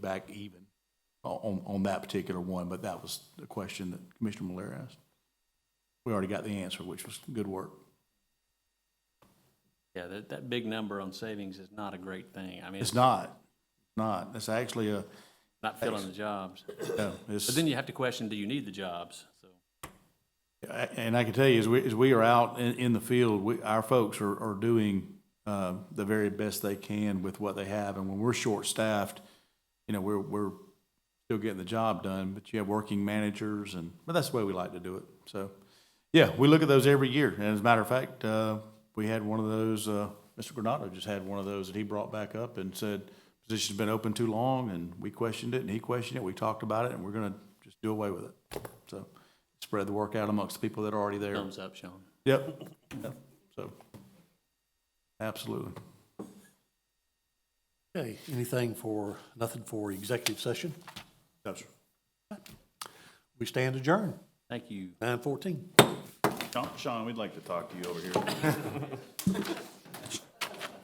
back even on, on that particular one, but that was the question that Commissioner Mallory asked. We already got the answer, which was good work. Yeah, that, that big number on savings is not a great thing. I mean, It's it's not, not, it's actually a, not filling the jobs. no, it's. But then you have to question, do you need the jobs? So, A- And I can tell you, as we, as we are out in, in the field, we, our folks are, are doing, uh, the very best they can with what they have. And when we're short-staffed, you know, we're, we're still getting the job done, but you have working managers and, but that's the way we like to do it. So, yeah, we look at those every year. And as a matter of fact, uh, we had one of those, uh, Mr. Granado just had one of those that he brought back up and said, position's been open too long, and we questioned it, and he questioned it, we talked about it, and we're gonna just do away with it. So, spread the work out amongst the people that are already there. thumbs up, Sean. Yep, yep, so, absolutely. Okay, anything for, nothing for executive session? Yes, sir. We stand adjourned, Thank you. nine fourteen. Sean, we'd like to talk to you over here.